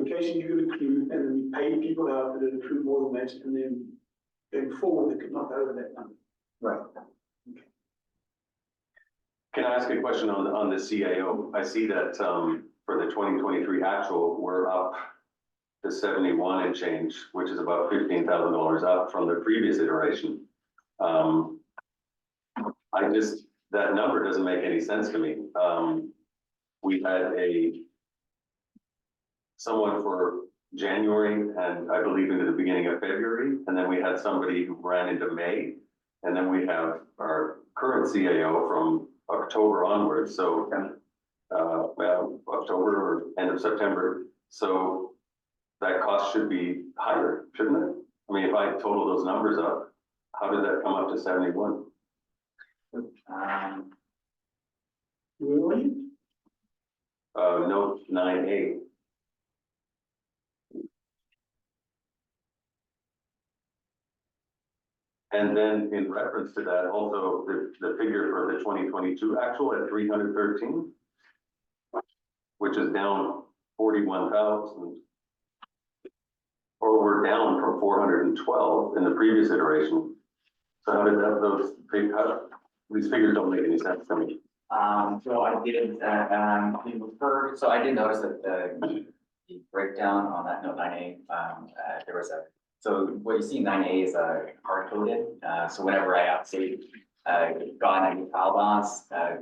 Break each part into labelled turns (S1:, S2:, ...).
S1: education you could accrue, and then we paid people out that had accrued more than that, and then going forward, they could not go over that number.
S2: Right.
S3: Can I ask a question on, on the CIO? I see that, um, for the twenty twenty-three actual, we're up to seventy-one and change, which is about fifteen thousand dollars up from the previous iteration. Um, I just, that number doesn't make any sense to me. Um, we had a someone for January and I believe into the beginning of February, and then we had somebody who ran into May. And then we have our current CAO from October onwards, so uh, well, October or end of September, so that cost should be higher, shouldn't it? I mean, if I total those numbers up, how did that come up to seventy-one?
S2: Um,
S1: Where were you?
S3: Uh, note nine A, And then in reference to that, also the, the figure for the twenty twenty-two actual at three hundred thirteen, which is down forty-one thousand. Or we're down from four hundred and twelve in the previous iteration. So how did that, those, fig- how, these figures don't make any sense to me.
S2: um, so I did, uh, um, we referred, so I did notice that the the breakdown on that note nine A, um, uh, there was a, so what you see nine A is a hard coded, uh, so whenever I update, uh, gone and file bonds, uh,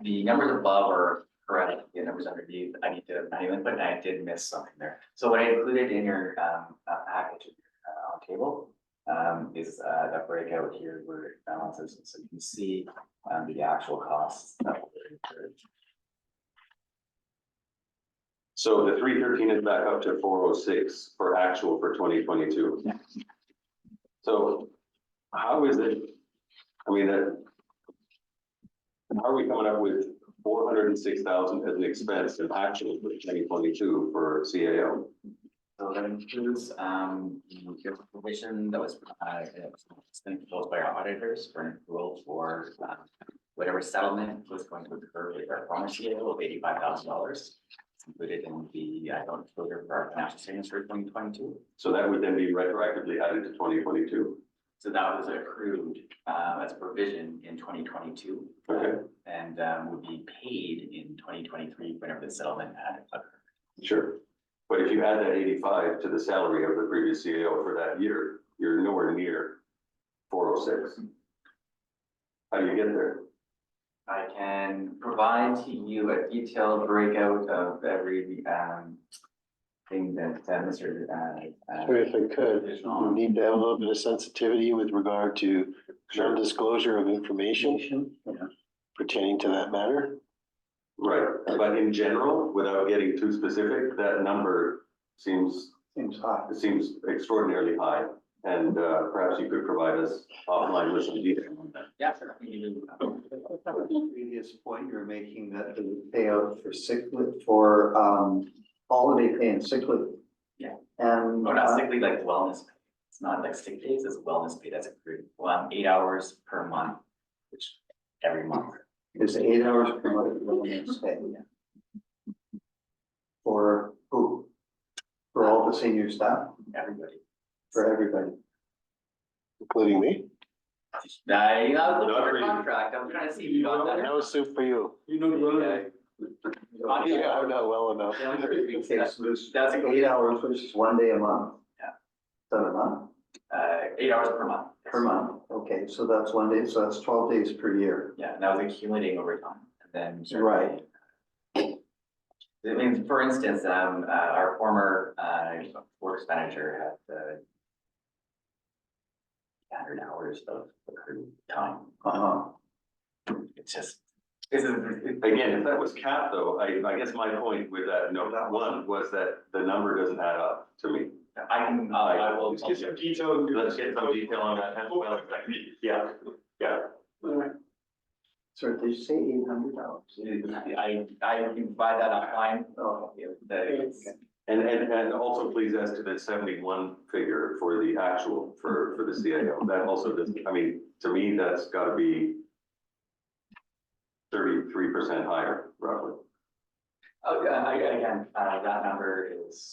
S2: the numbers above are correct, the numbers underneath, I need to manually input, and I did miss something there. So what I included in your, um, uh, package, uh, on table, um, is, uh, that breakout here where it balances, so you can see, um, the actual costs. that were incurred.
S3: So the three thirteen is back up to four oh six for actual for twenty twenty-two.
S2: Yeah.
S3: So how is it, I mean, that. How are we coming up with four hundred and six thousand as an expense in actual for twenty twenty-two for CAO?
S2: So that includes, um, the gift provision that was, uh, that was proposed by our auditors for an approval for, um, whatever settlement was going to occur with our pharmacy deal of eighty-five thousand dollars. Included in the, I don't for our financial statements for twenty twenty-two.
S3: So that would then be retroactively added to twenty twenty-two.
S2: So that was accrued, uh, as provision in twenty twenty-two.
S3: Okay.
S2: And, um, would be paid in twenty twenty-three whenever the settlement had occurred.
S3: Sure. But if you add that eighty-five to the salary of the previous CAO for that year, you're nowhere near four oh six. How do you get there?
S2: I can provide to you a detailed breakout of every, um, thing that uh, Mr. uh, uh,
S4: Or if I could,
S2: is
S4: we
S2: on.
S4: need to have a little bit of sensitivity with regard to
S3: Sure.
S4: non-disclosure of information
S2: Yeah.
S4: pertaining to that matter.
S3: Right, but in general, without getting too specific, that number seems,
S1: Seems high.
S3: it seems extraordinarily high. And uh, perhaps you could provide us offline with some detail on that.
S2: Yeah, sure. we can um, do that.
S5: Previous point you're making that the payout for sick leave, for um holiday pay and sick leave.
S2: Yeah.
S5: And.
S2: Oh, not
S5: uh,
S2: sick leave, like wellness. pay. It's not like sick days, it's wellness pay that's accrued, well, eight hours per month, which every month.
S5: Is eight hours per month, what do you say? For who? For all the senior staff,
S2: Everybody.
S5: for everybody.
S4: Including me?
S2: Uh, I was looking
S3: Not
S2: for
S3: really.
S2: a contract, I was trying to see if you got that.
S4: No soup for you.
S1: You know, well,
S4: Yeah, I'm not well enough.
S2: Yeah, I'm sure you can say that.
S5: Okay, so this-
S2: That's a-
S5: Eight hours versus one day a month.
S2: Yeah.
S5: Seven a month,
S2: Uh, eight hours per month.
S5: per month, okay, so that's one day, so that's twelve days per year.
S2: Yeah, and that was accumulating over time, and then. certainly-
S5: Right.
S2: I mean, for instance, um, uh, our former, uh, works manager had, uh, hundred hours of accrued time,
S5: Uh-huh.
S2: it's just, this is.
S3: Again, if that was capped though, I, I guess my point with that note one was that the number doesn't add up to me.
S2: I can, uh, I will.
S1: let's get some detail. and do
S3: Let's
S1: it.
S3: get some detail on that as well. Yeah, yeah.
S1: All right.
S5: Sorry, did you say eight hundred dollars?
S2: I, I can provide that online,
S5: Oh,
S2: the,
S3: And, and, and also please as to the seventy-one figure for the actual, for, for the CIO, that also doesn't, I mean, to me, that's gotta be thirty-three percent higher roughly.
S2: Oh, yeah, I- again, uh, that number is